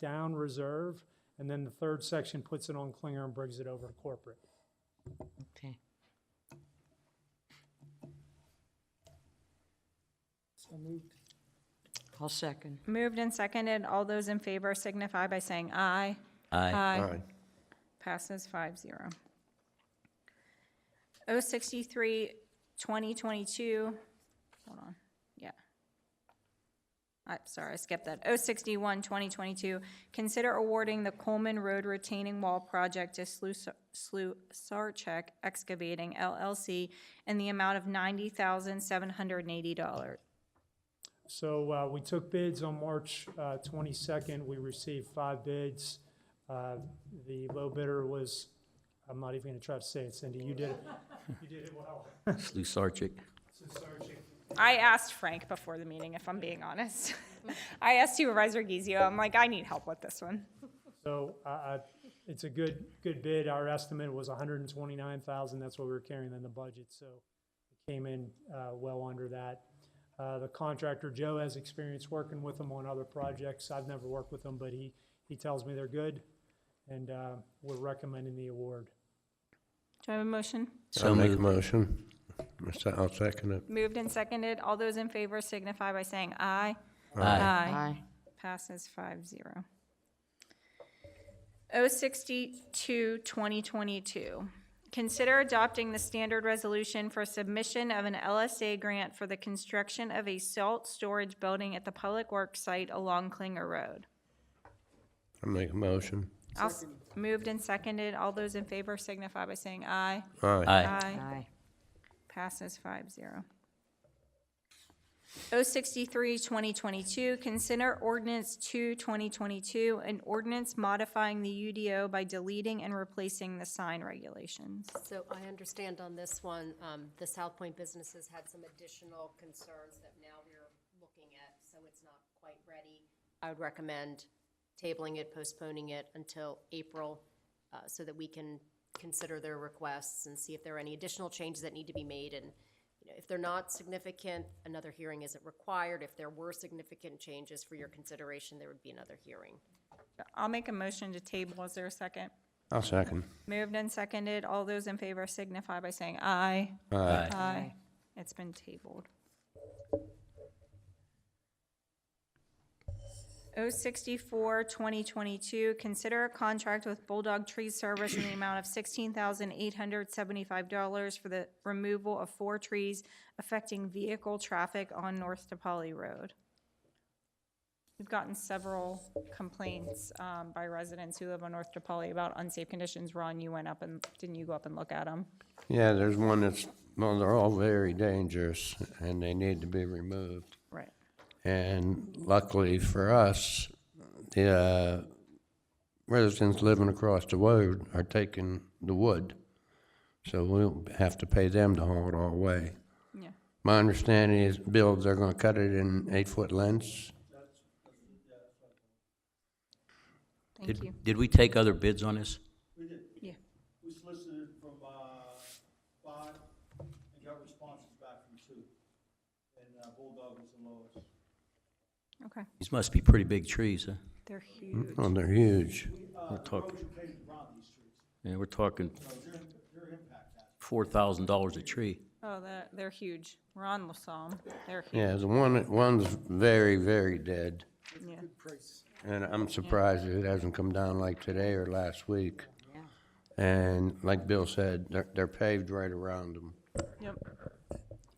down reserve, and then the third section puts it on Klinger and brings it over to corporate. Okay. I'll second. Moved and seconded. All those in favor signify by saying aye. Aye. Aye. Passes five zero. O sixty-three, twenty twenty-two, hold on, yeah. I'm sorry, I skipped that. O sixty-one, twenty twenty-two, consider awarding the Coleman Road retaining wall project to Slu- Slu Sarchek Excavating LLC in the amount of ninety thousand, seven hundred and eighty dollars. So uh, we took bids on March uh, 22nd. We received five bids. Uh, The low bidder was, I'm not even going to try to say it, Cindy, you did it. You did it well. Lusarchik. I asked Frank before the meeting, if I'm being honest. I asked Supervisor Gizio, I'm like, I need help with this one. So I- I- it's a good, good bid. Our estimate was 129,000. That's what we were carrying in the budget, so it came in uh, well under that. Uh, The contractor, Joe, has experience working with them on other projects. I've never worked with them, but he, he tells me they're good, and uh, we're recommending the award. Do I have a motion? So I'll make a moved. motion. I'll se- I'll second it. Moved and seconded. All those in favor signify by saying aye. Aye. Aye. Passes five zero. O sixty-two, twenty twenty-two. Consider adopting the standard resolution for submission of an LSA grant for the construction of a salt storage building at the Public Works site along Klinger Road. I'll make a motion. I'll s- Moved and seconded. All those in favor signify by saying aye. Aye. Aye. Aye. Passes 5-0. 063, 2022, consider ordinance 2, 2022, an ordinance modifying the UDO by deleting and replacing the sign regulations. So I understand on this one, um, the South Point businesses had some additional concerns that now we're looking at, so it's not quite ready. I would recommend tabling it, postponing it until April, uh, so that we can consider their requests and see if there are any additional changes that need to be made. And, you know, if they're not significant, another hearing isn't required. If there were significant changes for your consideration, there would be another hearing. I'll make a motion to table. Is there a second? I'll second. Moved and seconded. All those in favor signify by saying aye. Aye. Aye. Aye. It's been tabled. 064, 2022, consider a contract with Bulldog Tree Service in the amount of $16,875 for the removal of four trees affecting vehicle traffic on North DePauli Road. We've gotten several complaints um, by residents who live on North DePauli about unsafe conditions. Ron, you went up and, didn't you go up and look at them? Yeah, there's one that's, well, they're all very dangerous and they need to be removed. Right. And luckily for us, the uh, residents living across the road are taking the wood. So we'll have to pay them to haul it all away. Yeah. My understanding is, Bill, they're gonna cut it in eight-foot lengths? Thank you. Did, did we take other bids on this? Yeah. We solicited from uh, five and got responses back from two. And uh, Bulldog was the lowest. Okay, These must be pretty big trees, huh? they're huge. Oh, they're huge. We're talking, Erosion came around these streets, yeah, we're talking so your, your impact has. four thousand dollars a tree. Oh, they're, they're huge. Ron LaSalle, they're huge. Yeah, the one, one's very, very dead. Yeah. And I'm surprised it hasn't come down like today or last week. And like Bill said, they're, they're paved right around them. Yep.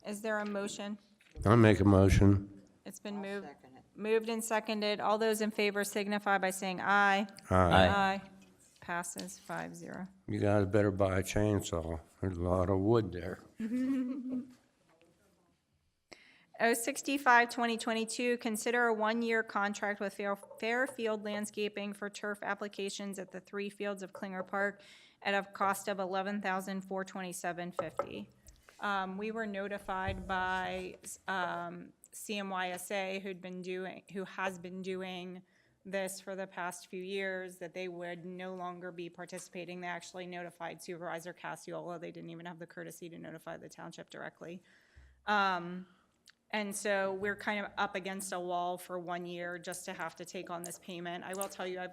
Is there a motion? I'll make a motion. It's been moved, moved and seconded. All those in favor signify by saying aye. Aye. Passes five zero. You guys better buy a chainsaw. There's a lot of wood there. O sixty-five, oh twenty twenty-two, consider a one-year contract with Fair- Fairfield Landscaping for turf applications at the three fields of Klinger Park at a cost of eleven thousand four twenty-seven fifty. Um, we were notified by, um, CMYSA who'd been doing, who has been doing this for the past few years, that they would no longer be participating. They actually notified Supervisor Cassiola. They didn't even have the courtesy to notify the township directly. And so we're kind of up against a wall for one year just to have to take on this payment. I will tell you, I've